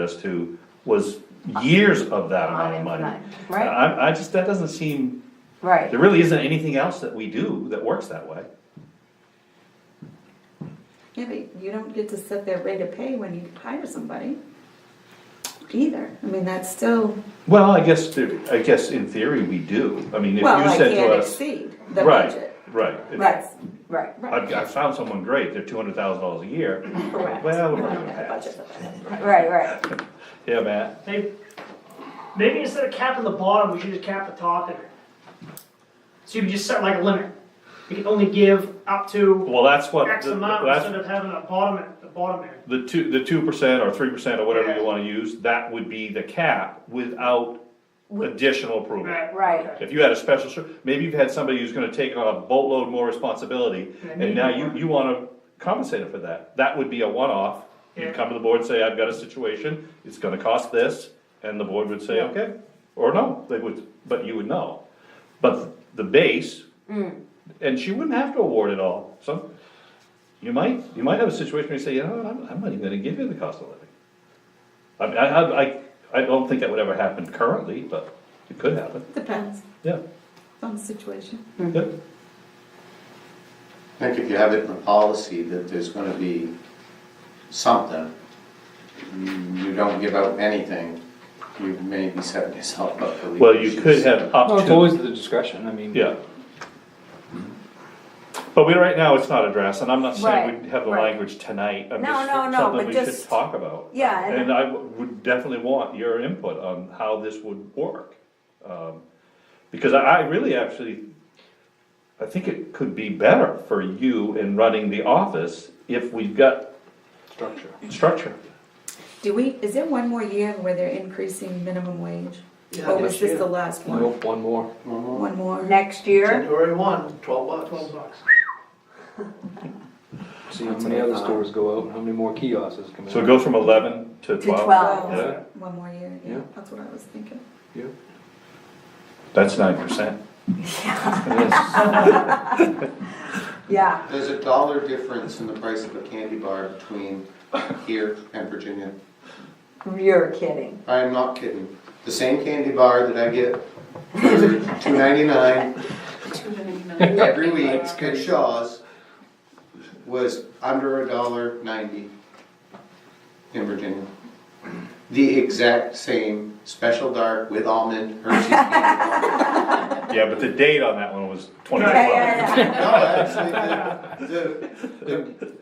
us to was years of that amount of money. Uninfinite, right. I, I just, that doesn't seem, Right, there really isn't anything else that we do that works that way. Yeah, but you don't get to set their rate of pay when you hire somebody either. I mean, that's still, Well, I guess, there- I guess in theory we do, I mean, if well, you I said to can't us. exceed the Right, budget. right. If- right, right. I've, I found someone great, they're two hundred thousand dollars a year. Correct. Well, we're No, not no, gonna pass. budget for that. Right, right, Yeah, Matt, Maybe, maybe instead of capping the bottom, we should just cap the top there. So you can just set like a limit. You can only give up to well, that's what, X the- amount that's, instead of having a bottom, at the bottom end. the two, the two percent or three percent or whatever you wanna use, that would be the cap without additional approval. Right. right. If you had a special, ser- maybe you've had somebody who's gonna take on a boatload more responsibility, and now you, you wanna compensate them for that, that would be a one-off. Yeah. You'd come to the board and say, I've got a situation, it's gonna cost this, and the board would say, Yeah. okay, or no, they would, but you would know. But the base, Mm. and she wouldn't have to award it all, so, you might, you might have a situation where you say, you know, what, I'm, I'm not even gonna give you the cost of living. I, mean, I, I- I, I don't think that would ever happen currently, but it could happen, Depends yeah. on the situation. Yep. I think if you have it in the policy that there's gonna be something, mm, you don't give out anything, you may be setting yourself up for. legal Well, you could issues. have up No, it's to, always the discretion, I mean. yeah. But we, right now, it's not addressed, and I'm not saying we Right, have the right. language tonight, I'm No, just, no, no, something but we should just- talk about. Yeah, and- And I w- would definitely want your input on how this would work. Um, Because I, I really actually, I think it could be better for you in running the office if we've got Structure. structure. Do we, is there one more year where they're increasing minimum wage? Yeah, Or was next this year. the last one? Nope, one more. One more? One more? Next year, January one, twelve bucks. Twelve bucks. See how many other stores go out and how many more kiosks come in. So it goes from eleven to To twelve? 12. Yeah, Well, One more year, yeah, Yeah. that's what I was thinking. Yeah. that's nine percent. Yes. yeah, There's a dollar difference in the price of a candy bar between here and Virginia. you're kidding. I am not kidding. The same candy bar that I get two ninety-nine every week at Shaw's was under a dollar ninety in Virginia. The exact same special dark with almond Hershey's candy bar. Yeah, but the date on that one was twenty Yeah, twelve. yeah, yeah. No, actually, the, the, the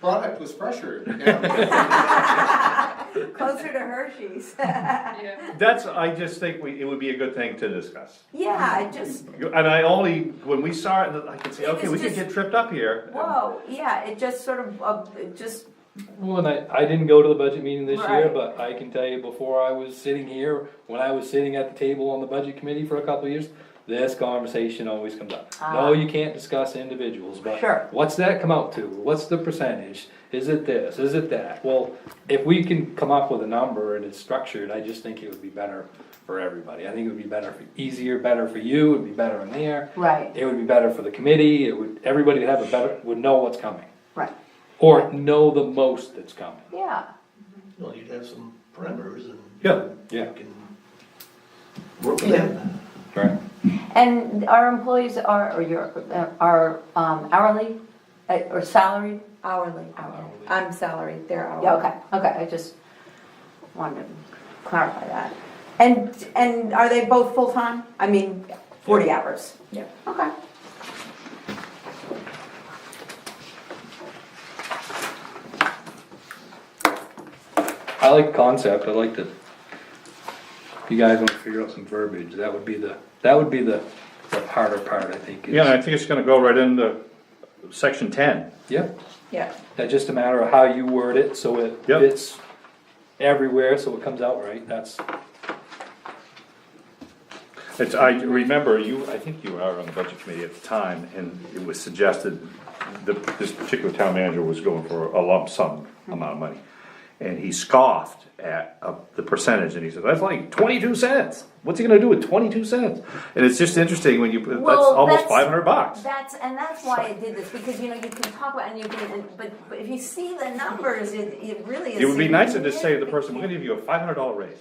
product was fresher. yeah. Closer to Hershey's. That's, I just think we, it would be a good thing to discuss. Yeah, it just, And I only, when we saw it, I could say, It okay, was we could just- get tripped up here. And- whoa, yeah, it just sort of, uh, it just, Well, and I, I didn't go to the budget meeting this year, Right. but I can tell you before I was sitting here, when I was sitting at the table on the budget committee for a couple of years, this conversation always comes up. Ah. No, you can't discuss individuals, but. Sure. What's that come out to? What's the percentage? Is it this? Is it that? Well, if we can come up with a number and it's structured, I just think it would be better for everybody. I think it would be better, for easier, better for you, it'd be better in there. Right. It would be better for the committee, it would, everybody would have a better, would know what's coming. right, Or know the most that's coming. yeah, Well, you'd have some parameters and. Yeah. Yeah. You can work with that. Right. and our employees are, or your, uh, are um, hourly, uh, or salaried? Hourly, Hourly. I'm salaried, they're hourly. Yeah, okay, okay, I just wanted to clarify that. And, and are they both full-time? I mean, forty hours? Yeah. Okay. I like concept, I like the, you guys wanna figure out some verbiage, that would be the, that would be the, the harder part, I think. is- Yeah, and I think it's gonna go right into section ten. Yeah, Yeah, that's just a matter of how you word it, so it Yep. fits everywhere, so it comes out right, that's, It's, I remember you, I think you were out on the budget committee at the time, and it was suggested that this particular town manager was going for a lump sum amount of money. And he scoffed at uh, the percentage, and he said, that's like twenty-two cents, what's he gonna do with twenty-two cents? And it's just interesting when you, put- that's Well, almost that's- five hundred bucks. That's, and that's why I did this, because, you know, you can talk about, and you can, and- but, but if you see the numbers, it, it really is. It would be nice to just say to the significant. person, we're gonna give you a five hundred dollar raise.